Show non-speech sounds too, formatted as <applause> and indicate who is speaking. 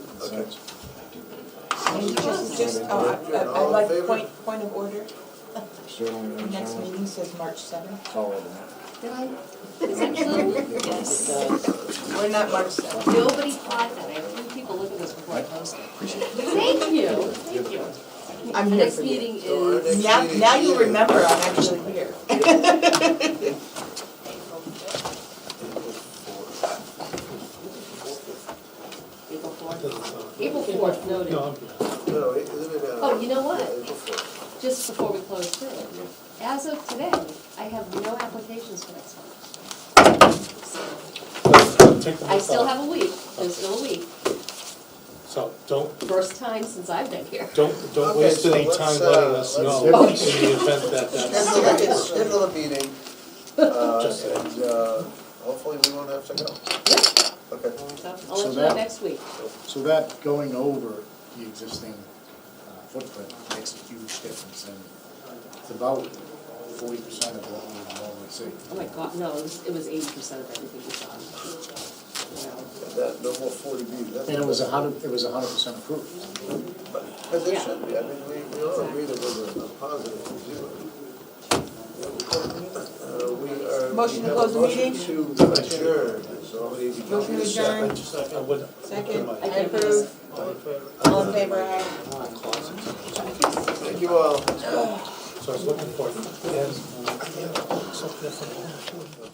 Speaker 1: Besides,
Speaker 2: And just, just, uh, I- I- I'd like point, point of order,
Speaker 1: certainly
Speaker 2: the
Speaker 1: there's
Speaker 2: next
Speaker 1: some
Speaker 2: meeting says March seventh.
Speaker 1: solid.
Speaker 3: Did I?
Speaker 2: We're not March seventh.
Speaker 3: Nobody caught that. I had three people look at this before I posted. Thank you, thank you.
Speaker 2: I'm
Speaker 3: The
Speaker 2: here
Speaker 3: next
Speaker 2: for you.
Speaker 3: meeting is,
Speaker 2: Now, now you remember I'm actually here.
Speaker 3: April fourth. April fourth, noted.
Speaker 4: No, it- isn't it, uh,
Speaker 3: Oh, you know what?
Speaker 4: yeah, April fourth.
Speaker 3: Just before we close through, as of today, I have no applications for next month.
Speaker 5: Take the
Speaker 3: I still
Speaker 5: month
Speaker 3: have
Speaker 5: off.
Speaker 3: a week, there's still a week,
Speaker 5: So don't,
Speaker 3: first time since I've been here.
Speaker 5: don't, don't
Speaker 4: Okay,
Speaker 5: waste
Speaker 4: so
Speaker 5: any
Speaker 4: let's,
Speaker 5: time
Speaker 4: uh,
Speaker 5: letting us know in
Speaker 4: let's-
Speaker 5: the event that that's,
Speaker 4: Schedule a- Schedule a meeting, uh,
Speaker 5: Just-
Speaker 4: and, uh, hopefully we won't have to go. Okay.
Speaker 3: So I'll
Speaker 1: So
Speaker 3: let you know
Speaker 1: that-
Speaker 3: next week.
Speaker 1: So that going over the existing uh, footprint makes a huge difference and it's about forty percent of what we would normally see.
Speaker 3: Oh my God, no, it was, it was eighty percent of everything we saw. Wow.
Speaker 4: That, no more forty B, that's.
Speaker 1: And it was a hundred, it was a hundred percent approved.
Speaker 4: But it should be, I mean, we, we all agree that was a a positive review. Uh, we are.
Speaker 2: Motion to
Speaker 4: we have a
Speaker 2: close the meeting?
Speaker 4: motion To adjourn, so we need to.
Speaker 2: <laughs> Motion to adjourn,
Speaker 5: I would,
Speaker 2: second, I
Speaker 3: I think it
Speaker 2: approve,
Speaker 3: was-
Speaker 4: All in favor?
Speaker 2: all in favor, aye.
Speaker 4: Thank you all.
Speaker 5: so I was looking for, it. and something different.